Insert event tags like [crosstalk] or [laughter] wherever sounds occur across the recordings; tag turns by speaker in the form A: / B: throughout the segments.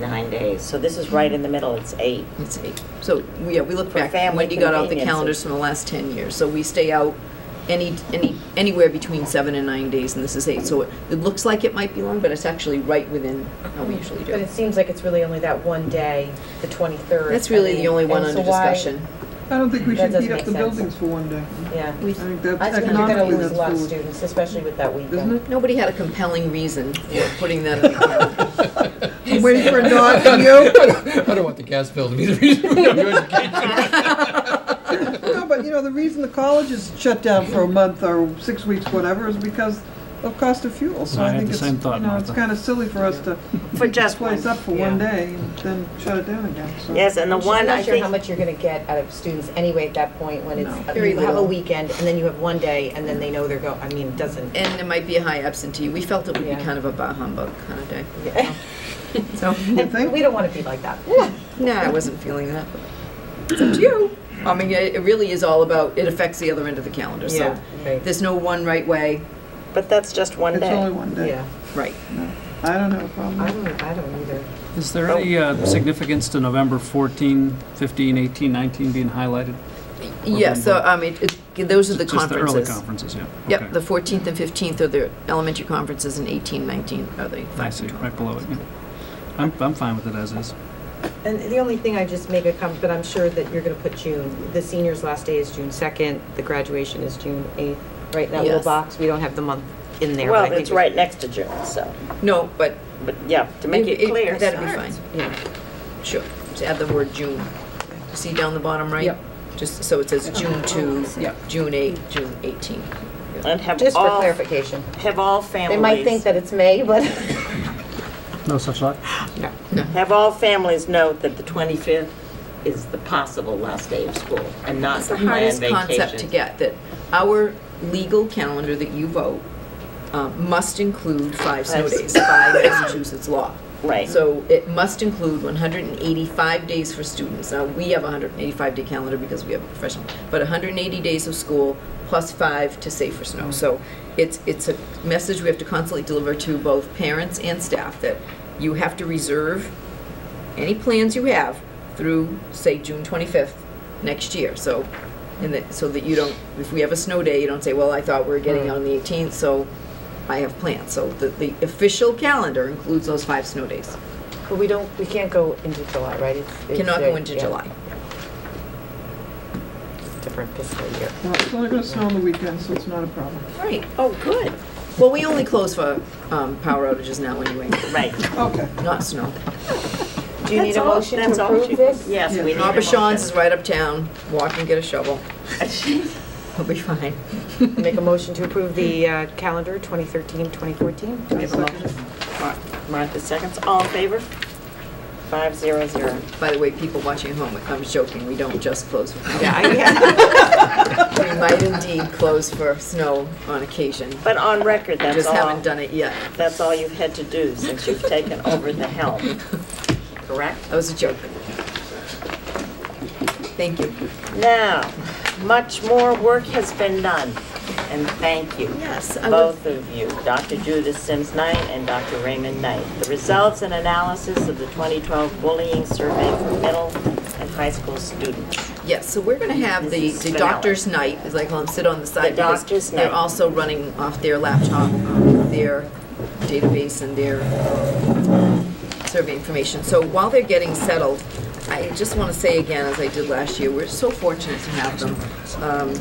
A: nine days. So this is right in the middle, it's eight.
B: Let's see. So, yeah, we look
A: For
B: back,
A: family
B: Wendy got out the
A: conveniences.
B: calendars from the last 10 years. So we stay out any, any, anywhere between seven and nine days, and this is eight. So it, it looks like it might be long, but it's actually right within how we usually do
C: But it
B: it.
C: seems like it's really only that one day, the 23rd.
B: That's
C: I
B: really
C: mean,
B: the only one
C: and
B: under
C: so why-
B: discussion.
D: I don't think we
C: That
D: should heat
C: doesn't
D: up the
C: make sense.
D: buildings for one day.
C: Yeah.
D: I think that's
C: I think you're going to
D: economically
C: lose
D: that's
C: a lot of
D: foolish,
C: students, especially with that weekend.
D: isn't it?
B: Nobody had a compelling reason for putting that in
A: [laughs]
B: the calendar.
D: I'm waiting for a
E: [laughs]
D: nod from you.
E: I don't want the gas bill to be the reason we don't do education.
F: [laughs]
D: No, but you know, the reason the college is shut down for a month or six weeks, whatever, is because of cost of fuel. So I
F: I had
D: think
F: the
D: it's,
F: same thought,
D: you know, it's
F: Martha.
D: kind of silly for us to
A: For
D: heat this
A: just
D: place
A: one,
D: up for one
C: yeah.
D: day and then shut it down again, so.
A: Yes, and the one, I
C: I'm not sure how
A: think,
C: much you're going to get out of students anyway at that point when it's,
B: No. Very
C: you have a
B: little.
C: weekend and then you have one day and then they know they're go, I mean, it doesn't. [laughs]
B: And there might be a high absentee. We felt it would be
C: Yeah.
B: kind of a bah humbug kind of day.
C: Yeah.
B: So,
D: You think?
C: We don't want to be like that.
B: no, I wasn't feeling that. but It's up to you. I mean, it it really is all about, it affects the other end of the calendar. So
C: right.
B: there's no one right way.
A: but that's just one
D: It's only
A: day.
D: one day.
C: Yeah,
B: Right.
D: I don't have a problem.
C: I
D: with it.
C: don't, I don't either.
F: Is there any uh, significance to November 14, 15, 18, 19 being highlighted?
B: Yeah, so, um, it, it, those are the
F: Just the early
B: conferences.
F: conferences, yeah.
B: Yep,
F: Okay.
B: the 14th and 15th are the elementary conferences, and 18, 19 are the
F: I
B: five
F: see,
B: through
F: right
B: 12.
F: below it, yeah. I'm, I'm fine with it as is.
C: And the only thing I just make a comment, but I'm sure that you're going to put June, the seniors' last day is June 2nd, the graduation is June 8th. Right, in that little
B: Yes.
C: box, we don't have the month in there. but I
A: Well,
C: think
A: it's right next to June, so,
B: No, but.
A: but yeah, to make it clear.
B: That'd be fine,
C: Yeah.
B: sure. Just add the word June. See down the bottom right?
D: Yep.
B: Just, so it says June 2, June 8, June 18.
A: And have
C: Just for
A: all,
C: clarification.
A: have all
C: They might think
A: families,
C: that it's May, but.
F: No such luck?
A: have all families note that the 25th is the possible last day of school and not
B: That's the
A: the planned
B: hardest
A: vacation.
B: concept to get, that our legal calendar that you vote um, must include five snow
A: Five. [coughs]
B: days by Massachusetts law.
A: Right.
B: So it must include 185 days for students. Now, we have a 185-day calendar because we have a professional, but 180 days of school plus five to save for snow. So it's, it's a message we have to constantly deliver to both parents and staff that you have to reserve any plans you have through, say, June 25th next year. So, and that, so that you don't, if we have a snow day, you don't say, well, I thought we were getting out on the 18th, so I have plans. So the, the official calendar includes those five snow days.
C: [laughs] But we don't, we can't go into July, right? It's- it's
B: Cannot
C: the-
B: go into
C: yeah,
B: July.
C: it's a Different fiscal year.
D: Well, It's only gonna snow on the weekend, so it's not a problem.
B: Right.
A: Oh, good,
B: Well, we only close for um, power outages now anyway,
A: right.
D: Okay.
B: not snow.
C: Do you need
A: That's
C: a
A: all-
C: motion
A: that's
C: to
A: all
C: approve
A: she-
C: this?
A: Yes, we need a motion. [laughs]
B: Aubuchon's is right uptown. Walk and get a shovel. We'll be fine.
C: Make a motion to approve the uh, calendar 2013, 2014?
B: We have a motion.
A: Mar- Martha seconds, all in favor? Five zero zero.
B: By the way, people watching at home, I'm joking, we don't just close for
C: Yeah,
B: [laughs]
C: I- yeah.
B: We might indeed close for snow on occasion.
A: But on record, that's
B: Just
A: all,
B: haven't done it yet.
A: that's all you've had to do since
B: [laughs]
A: you've taken over the helm, correct?
B: That was a joke. Thank you.
A: Now, much more work has been done, and thank you.
B: Yes, I would-
A: Both of you, Dr. Judith Sims Knight and Dr. Raymond Knight. The results and analysis of the 2012 bullying survey for middle and high school students.
B: Yes, so we're going to have the,
A: This
B: the
A: is
B: doctor's night, as I call them, sit on the side.
A: The
B: because
A: doctor's night.
B: They're also running off their laptop, um, their database and their um, survey information. So while they're getting settled, I just want to say again, as I did last year, we're so fortunate to have them. Um,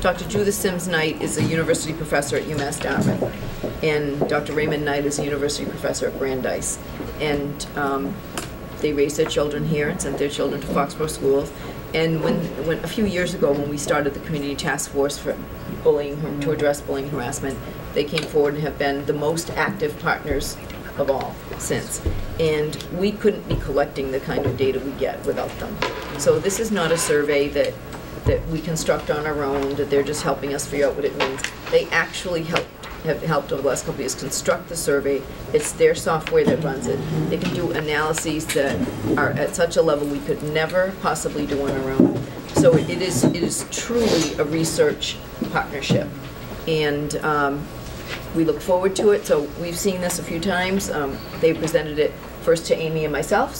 B: Dr. Judith Sims Knight is a university professor at UMass Dartmouth, and Dr. Raymond Knight is a university professor at Brandeis. And um, they raised their children here and sent their children to Foxborough schools. And when, when, a few years ago, when we started the community task force for bullying, to address bullying and harassment, they came forward and have been the most active partners of all since. And we couldn't be collecting the kind of data we get without them. So this is not a survey that, that we construct on our own, that they're just helping us figure out what it means. They actually helped, have helped over the last couple of years construct the survey. It's their software that runs it. They can do analyses that are at such a level we could never possibly do on our own. So it is, it is truly a research partnership. And um, we look forward to it, so we've seen this a few times. Um, They presented it first to Amy and myself, so